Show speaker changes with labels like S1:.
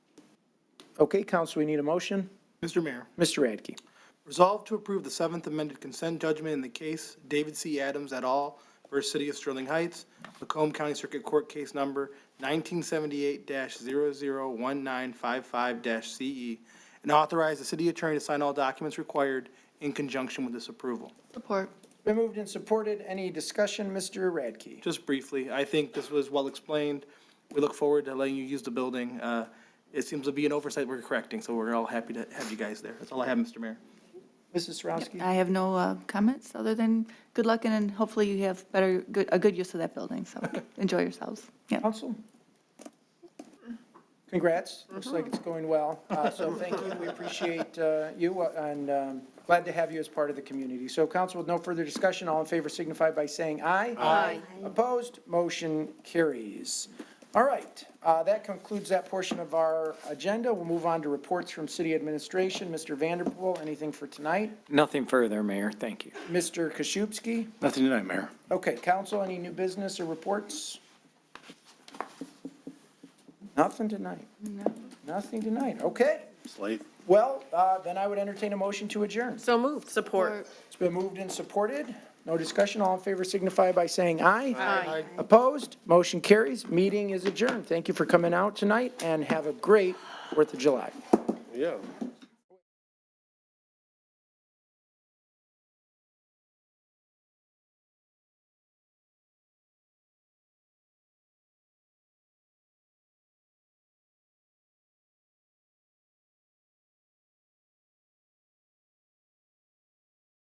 S1: Okay, council, we need a motion.
S2: Mr. Mayor,
S1: Mr. Radke.
S2: resolve to approve the seventh amended consent judgment in the case David C. Adams et al. versus City of Sterling Heights, Macomb County Circuit Court Case Number 1978-001955-CE, E, and authorize the city attorney to sign all documents required in conjunction with this approval.
S3: Support.
S1: Been moved and supported. Any discussion, Mr. Radke?
S2: Just briefly, I think this was well explained. We look forward to letting you use the building. Uh, It seems to be an oversight we're correcting, so we're all happy to have you guys there. That's all I have, Mr. Mayor.
S1: Mrs. Sarowski?
S3: I have no uh, comments other than good luck and then hopefully you have better, good, a good use of that building. So enjoy yourselves. Yeah.
S1: Council? Congrats. Looks like it's going well. Uh, So thank you. We appreciate uh, you uh, and um, glad to have you as part of the community. So council, with no further discussion, all in favor signify by saying aye. Aye. Opposed? Motion carries. All right, uh, that concludes that portion of our agenda. We'll move on to reports from city administration. Mr. Vanderpool, anything for tonight?
S4: Nothing further, Mayor. Thank you.
S1: Mr. Koszywski?
S4: Nothing tonight, Mayor.
S1: Okay, council, any new business or reports? Nothing tonight. Nothing tonight, okay.
S5: It's late.
S1: Well, uh, then I would entertain a motion to adjourn.
S6: So moved. Support.
S1: It's been moved and supported. No discussion, all in favor signify by saying aye.
S6: Aye.
S1: Opposed, motion carries, meeting is adjourned. Thank you for coming out tonight, and have a great Fourth of July.
S5: Yeah.